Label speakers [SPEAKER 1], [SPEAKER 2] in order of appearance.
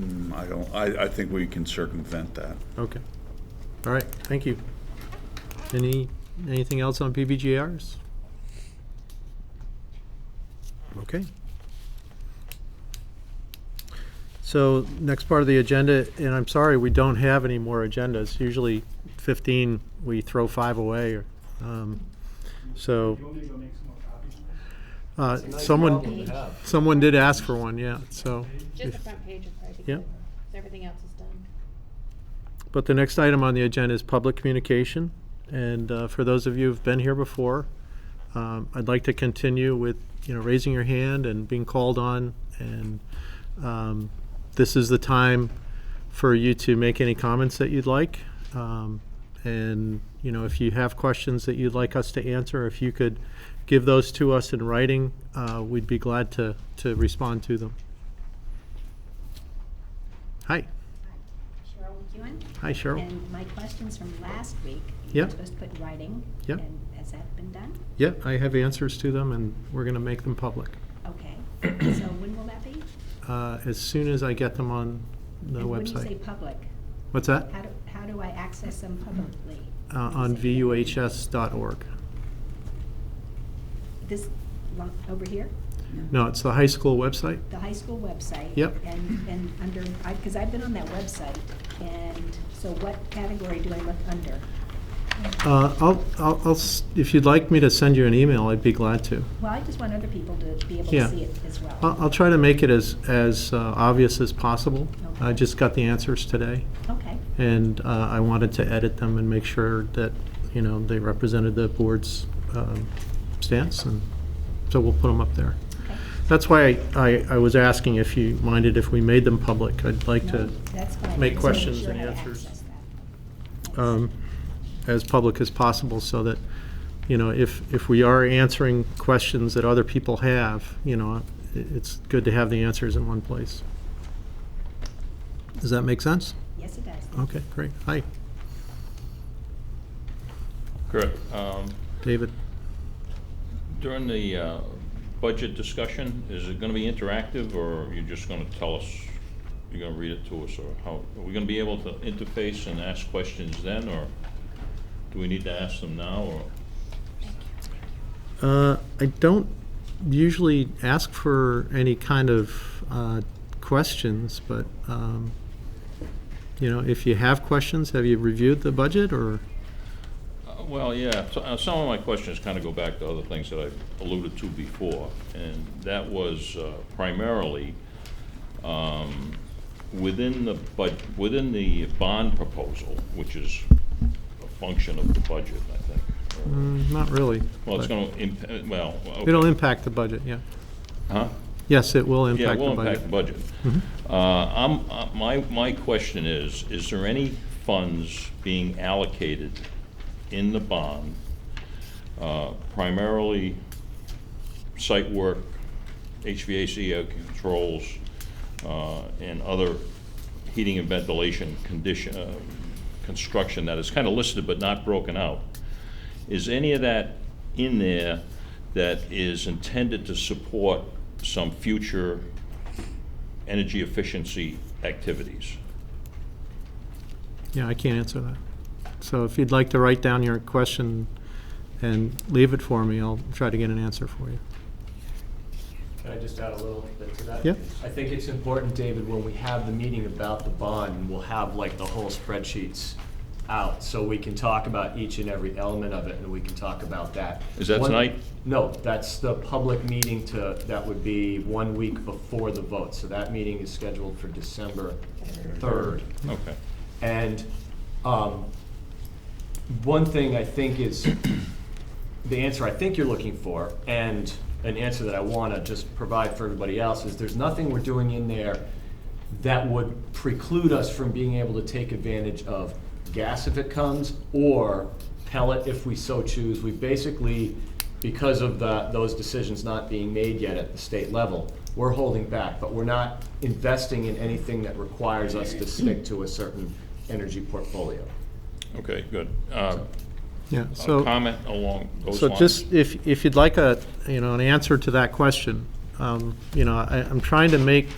[SPEAKER 1] Mm, I don't, I, I think we can circumvent that.
[SPEAKER 2] Okay. All right, thank you. Any, anything else on PBGRs? Okay. So next part of the agenda, and I'm sorry, we don't have any more agendas. Usually 15, we throw five away. or, um, So, uh, someone, someone did ask for one, yeah, so.
[SPEAKER 3] Just the
[SPEAKER 2] if-
[SPEAKER 3] front page will probably be
[SPEAKER 2] Yeah.
[SPEAKER 3] good. So everything else is done.
[SPEAKER 2] But the next item on the agenda is public communication. And uh, for those of you who've been here before, um, I'd like to continue with, you know, raising your hand and being called on. And um, this is the time for you to make any comments that you'd like. Um, And, you know, if you have questions that you'd like us to answer, if you could give those to us in writing, uh, we'd be glad to, to respond to them. Hi,
[SPEAKER 4] Cheryl McEwen.
[SPEAKER 2] hi Cheryl.
[SPEAKER 4] And my questions from last week.
[SPEAKER 2] Yeah.
[SPEAKER 4] You're supposed to put in writing.
[SPEAKER 2] Yeah.
[SPEAKER 4] And has that been done?
[SPEAKER 2] Yeah, I have answers to them, and we're going to make them public
[SPEAKER 4] Okay. So when will that be?
[SPEAKER 2] uh, as soon as I get them on the
[SPEAKER 4] And When you say
[SPEAKER 2] website.
[SPEAKER 4] public,
[SPEAKER 2] What's that?
[SPEAKER 4] how do, how do I access them publicly?
[SPEAKER 2] Uh, On vuhs.org.
[SPEAKER 4] This, one over here,
[SPEAKER 2] No, it's the high school website.
[SPEAKER 4] the high school website.
[SPEAKER 2] Yep.
[SPEAKER 4] And, and under, I, because I've been on that website, and so what category do I look under?
[SPEAKER 2] Uh, I'll, I'll, I'll s- if you'd like me to send you an email, I'd be glad to.
[SPEAKER 4] Well, I just want other people to be able
[SPEAKER 2] Yeah. Uh,
[SPEAKER 4] to see it as well.
[SPEAKER 2] I'll, I'll try to make it as, as uh, obvious as possible. I
[SPEAKER 4] Okay.
[SPEAKER 2] just got the answers today,
[SPEAKER 4] Okay,
[SPEAKER 2] and uh, I wanted to edit them and make sure that, you know, they represented the board's um, stance, and so we'll put them up there.
[SPEAKER 4] okay.
[SPEAKER 2] That's why I, I was asking if you minded if we made them public. I'd like
[SPEAKER 4] No,
[SPEAKER 2] to, make
[SPEAKER 4] that's fine. I just wanna make
[SPEAKER 2] questions
[SPEAKER 4] sure
[SPEAKER 2] and
[SPEAKER 4] how to
[SPEAKER 2] answers.
[SPEAKER 4] access that.
[SPEAKER 2] um, as public as possible so that, you know, if, if we are answering questions that other people have, you know, it- it's good to have the answers in one place. Does that make sense?
[SPEAKER 4] Yes, it does.
[SPEAKER 2] Okay, great. Hi,
[SPEAKER 5] Correct. Um,
[SPEAKER 2] David.
[SPEAKER 5] During the uh, budget discussion, is it going to be interactive, or are you just going to tell us, you're going to read it to us, or how, are we going to be able to interface and ask questions then, or do we need to ask them now, or?
[SPEAKER 2] Uh, I don't usually ask for any kind of uh, questions, but, um, you know, if you have questions, have you reviewed the budget or?
[SPEAKER 5] Uh, Well, yeah, so- uh, some of my questions kind of go back to other things that I've alluded to before, and that was uh, primarily um, within the, but, within the bond proposal, which is a function of the budget, I think. or-
[SPEAKER 2] Mm, Not really.
[SPEAKER 5] Well, it's
[SPEAKER 2] but
[SPEAKER 5] going to, well, okay.
[SPEAKER 2] It'll impact the budget, yeah.
[SPEAKER 5] Huh?
[SPEAKER 2] Yes, it will
[SPEAKER 5] Yeah,
[SPEAKER 2] impact
[SPEAKER 5] it
[SPEAKER 2] the
[SPEAKER 5] will impact the
[SPEAKER 2] budget. Mm-hmm.
[SPEAKER 5] budget. Uh, I'm, uh, my, my question is, is there any funds being allocated in the bond, uh, primarily site work, HVAC air controls, uh, and other heating and ventilation condition, uh, construction that is kind of listed but not broken out? Is any of that in there that is intended to support some future energy efficiency activities?
[SPEAKER 2] Yeah, I can't answer that. So if you'd like to write down your question and leave it for me, I'll try to get an answer for you.
[SPEAKER 6] Can I just add a little bit to that?
[SPEAKER 2] Yeah.
[SPEAKER 6] I think it's important, David, when we have the meeting about the bond, we'll have like the whole spreadsheets out, so we can talk about each and every element of it, and we can talk about that.
[SPEAKER 5] Is that
[SPEAKER 6] One-
[SPEAKER 5] tonight?
[SPEAKER 6] No, that's the public meeting to, that would be one week before the vote, so that meeting is scheduled for December third.
[SPEAKER 5] Okay.
[SPEAKER 6] And um, one thing I think is the answer I think you're looking for, and an answer that I want to just provide for everybody else, is there's nothing we're doing in there that would preclude us from being able to take advantage of gas if it comes, or pellet if we so choose. We basically, because of the, those decisions not being made yet at the state level, we're holding back, but we're not investing in anything that requires us to stick to a certain energy portfolio.
[SPEAKER 5] Okay, good. Uh,
[SPEAKER 2] Yeah,
[SPEAKER 5] a
[SPEAKER 2] so.
[SPEAKER 5] Comment along those
[SPEAKER 2] So
[SPEAKER 5] lines?
[SPEAKER 2] just, if, if you'd like a, you know, an answer to that question, um, you know, I, I'm trying to make